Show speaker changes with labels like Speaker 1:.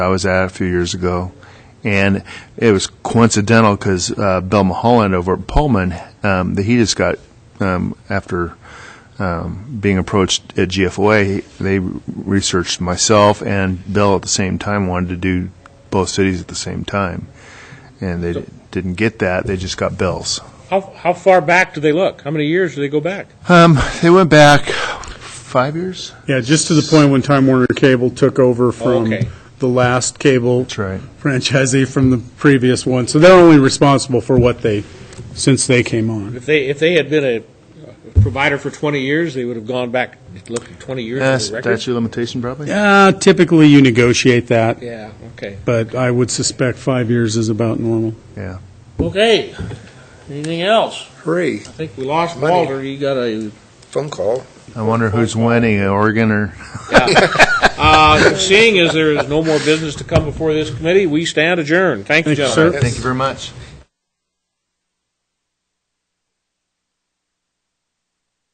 Speaker 1: I was at a few years ago, and it was coincidental because uh, Bill Mulholland over at Pullman, um, that he just got um, after um, being approached at GFOA, they researched myself and Bill at the same time wanted to do both cities at the same time, and they didn't get that. They just got Bill's.
Speaker 2: How, how far back do they look? How many years do they go back?
Speaker 1: Um, they went back five years.
Speaker 3: Yeah, just to the point when Time Warner Cable took over from
Speaker 2: okay.
Speaker 3: the last cable
Speaker 1: That's right.
Speaker 3: franchisee from the previous one. So they're only responsible for what they, since they came on.
Speaker 2: If they, if they had been a provider for 20 years, they would have gone back, looked at 20 years
Speaker 1: Uh,
Speaker 2: of the record?
Speaker 1: statute of limitation, probably.
Speaker 3: Uh, Typically, you negotiate that,
Speaker 2: Yeah, okay.
Speaker 3: but I would suspect five years is about normal.
Speaker 1: Yeah.
Speaker 2: Okay, anything else?
Speaker 4: Hurry,
Speaker 2: I think we lost
Speaker 4: Money.
Speaker 2: Walter, you got a,
Speaker 4: phone call.
Speaker 1: I wonder who's winning, Oregon or
Speaker 2: uh, seeing as there is no more business to come before this committee, we stand adjourned. Thank you,
Speaker 3: Thank you,
Speaker 2: gentlemen.
Speaker 3: sir.
Speaker 1: Thank you very much.